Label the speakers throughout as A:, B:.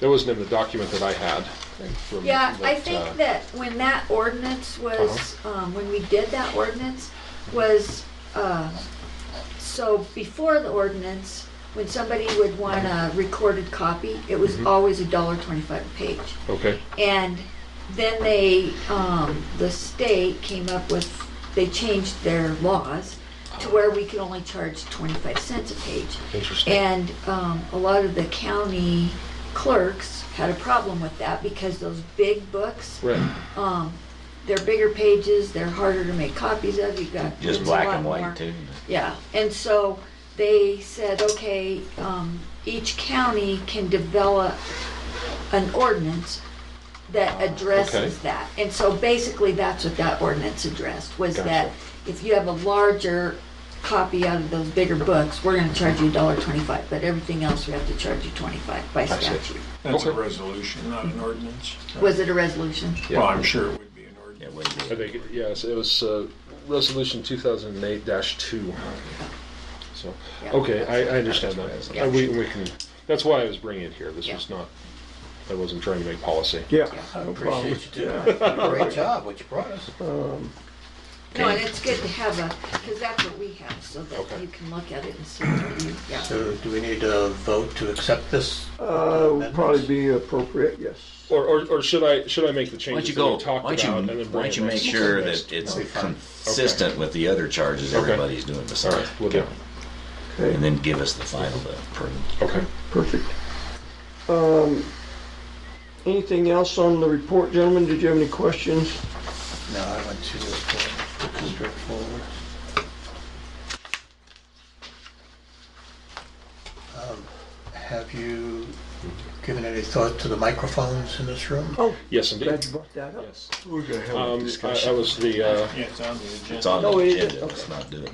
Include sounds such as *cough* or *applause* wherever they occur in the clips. A: That wasn't in the document that I had. from-
B: Yeah, I
A: uh,
B: think that when that ordinance was, um, when we did that ordinance, was, um, so before the ordinance, when somebody would want a recorded copy, it was always a dollar twenty-five a page.
A: Okay,
B: And then they, um, the state came up with, they changed their laws to where we could only charge twenty-five cents a page.
A: interesting.
B: And um, a lot of the county clerks had a problem with that because those big books,
A: Right,
B: um, they're bigger pages, they're harder to make copies of, you've got. it's
C: Just
B: a
C: black
B: lot
C: and
B: more.
C: white too.
B: Yeah, and so they said, okay, um, each county can develop an ordinance that addresses
A: Okay.
B: that. And so basically, that's what that ordinance addressed, was
A: Gotcha.
B: that if you have a larger copy out of those bigger books, we're gonna charge you a dollar twenty-five, but everything else, we have to charge you twenty-five by
A: see.
B: statute.
D: That's a
A: Okay.
D: resolution, not an ordinance.
B: Was it a resolution?
A: Yeah.
D: Well, I'm sure it would be an
C: It
D: ordinance.
C: wouldn't
A: I
C: be.
A: think, yes, it was uh, Resolution 2008-2. So,
B: Yeah.
A: okay, I I understand that.
B: Yeah.
A: Uh, We we can, that's why I was bringing it here. This
B: Yeah.
A: was not, I wasn't trying to make policy.
E: Yeah.
F: I
E: no problem.
F: appreciate you doing it. Great job, what you brought us.
B: No, and it's good to have a, because that's what we have, so
A: Okay.
B: that you can look at it and see what you, yeah.
F: So do we need to vote to accept this?
E: Uh, would probably be appropriate, yes.
A: Or- Or or should I, should I make the
C: Why don't
A: changes that
C: you go,
A: we
C: why
A: talked
C: don't
A: about? and
C: you,
A: then
C: why
A: bring
C: don't
A: it
C: you make
A: next-
C: sure
A: next-
C: that it's
F: That'd be fine.
C: consistent with the other charges
A: Okay.
C: everybody's doing
A: All
C: besides.
A: right, will do.
E: Okay,
C: And then give us the final to approve.
A: Okay.
E: perfect. Um, anything else on the report, gentlemen? Did you have any questions?
F: No, I went to this one, took it straight forward. Um, Have you given any thought to the microphones in this room?
E: Oh,
A: Yes,
E: glad
A: indeed.
E: you brought that up.
A: Yes.
E: We're gonna have
A: Um, I- That was the uh,
D: Yeah, it's on the
C: It's
D: agenda.
C: on the
E: No, it isn't.
C: agenda, let's not do it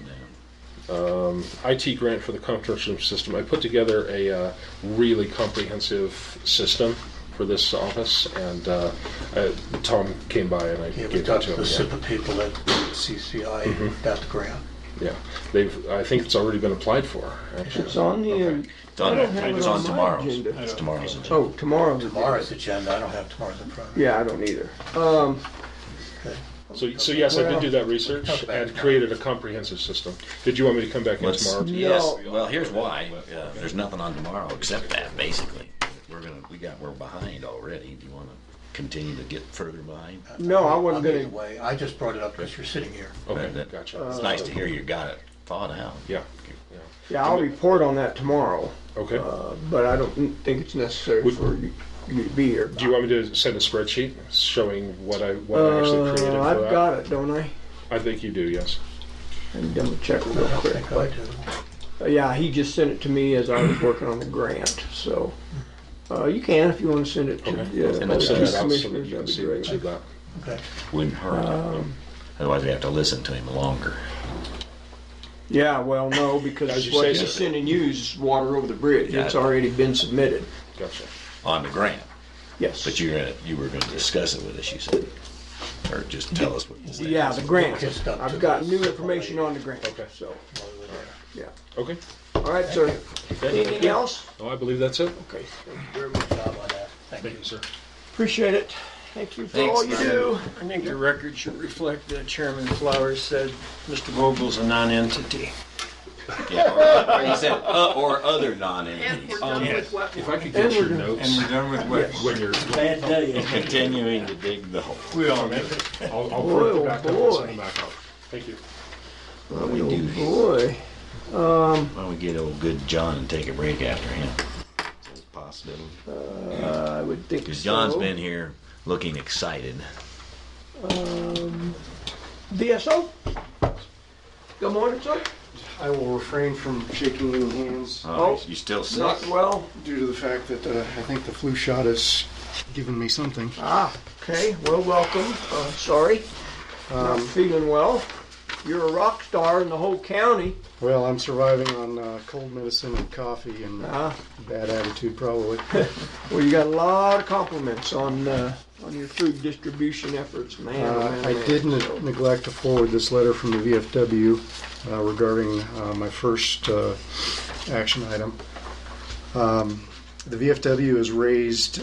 C: now.
A: IT grant for the construction system. I put together a uh, really comprehensive system for this office, and uh, I, Tom came by and I
F: Yeah, we
A: gave it
F: talked
A: to
F: to
A: him.
F: the
A: Yeah.
F: SIPA people at CCI
E: Mm-hmm.
F: about the grant.
A: yeah, they've. I think it's already been applied for. Actually.
E: It's on the, um,
C: It's on,
E: I don't have it
C: it's
E: on
C: on
E: my
C: tomorrow's,
E: agenda.
C: it's tomorrow's agenda.
E: oh, tomorrow's.
F: Tomorrow's agenda, I don't have tomorrow's in front of me.
E: Yeah, I don't either. Um,
F: Okay.
A: So, so yes, I did do that research and created a comprehensive system. Did you want me to come back in
C: Let's,
A: tomorrow?
C: yes,
E: No.
C: well, here's why. Uh, There's nothing on tomorrow except that, basically. We're gonna, we got, we're behind already. Do you wanna continue to get further behind?
E: no, I wasn't
F: I'm either
E: gonna,
F: way. I just brought it up because you're sitting here.
A: Okay,
C: Right, that-
A: gotcha.
E: Uh,
C: It's nice to hear you got it thought out.
A: yeah.
E: yeah, I'll report on that tomorrow,
A: Okay.
E: uh, but I don't think it's necessary
A: Would-
E: for you you to be here.
A: Do you want me to send a spreadsheet showing what I what I actually
E: Uh,
A: created for
E: I've
A: that?
E: got it, don't I?
A: I think you do. Yes.
E: And double check real
F: I
E: quick.
F: think I
E: but-
F: do.
E: Uh, Yeah, he just sent it to me as I was working on the grant, so, uh, you can if you wanna send it to.
A: Okay.
E: the
C: Send
A: I'll
E: uh,
C: it
A: send that
E: two
C: to
A: out so that
E: commissioners,
A: you can
E: that'd be
A: see what
E: great.
A: you got.
F: Okay.
C: Wouldn't hurt.
A: Um,
C: Otherwise, we have to listen to him longer.
E: Yeah, well, no,
A: As
E: because
A: you
E: what
A: say,
E: he's
A: sir.
E: sending you is water over the bridge,
C: Yeah.
E: it's already been submitted,
A: Gotcha.
C: on the grant,
E: yes.
C: but you're gonna, you were gonna discuss it with us, you said, or just tell us what you said.
E: Yeah, the grant,
F: Just up to
E: I've got
F: the-
E: new information on the grant,
A: Okay.
E: so,
F: While we're there.
E: yeah.
A: Okay.
E: All right, sir, anything else?
A: No, Oh, I believe that's it.
E: Okay,
F: Very good job on that. Thank you.
A: Thank you, sir.
E: appreciate it, thank you for all you do.
G: I think the record should reflect that Chairman Flowers said Mr. Vogel's a non-entity.
C: Yeah, or- or you said, uh, or other non-entities.
G: Yes.
A: If I could
E: And
A: get
E: we're
A: your
E: gonna-
A: notes
G: And we're done with what?
A: when you're,
G: Bad day.
C: *laughs* Continuing to dig the hole.
G: We all make it.
A: I'll, I'll
E: Boy,
A: print
E: oh
A: it back up and
E: boy.
A: send it back out. Thank you.
C: We do,
E: Oh, Boy,
C: why don't we get old good John and take a break after him? That's possible.
E: Uh, I would think so.
C: Cause John's been here looking excited.
E: DSO? Good morning, sir.
H: I will refrain from shaking any hands
C: Oh, you still sick?
E: Not well.
H: due to the fact that uh, I think the flu shot has given me something.
E: Ah, okay. Well, welcome. Uh, sorry.
H: Um,
E: Not feeling well. You're a rock star in the whole county.
H: Well, I'm surviving on uh, cold medicine and coffee and
E: Ah,
H: bad attitude, probably.
E: well, you got a lot of compliments on uh, on your food distribution efforts, man. oh,
H: Uh,
E: man,
H: I
E: man.
H: did ne- neglect to forward this letter from the VFW uh, regarding uh, my first uh, action item. Um, the VFW has raised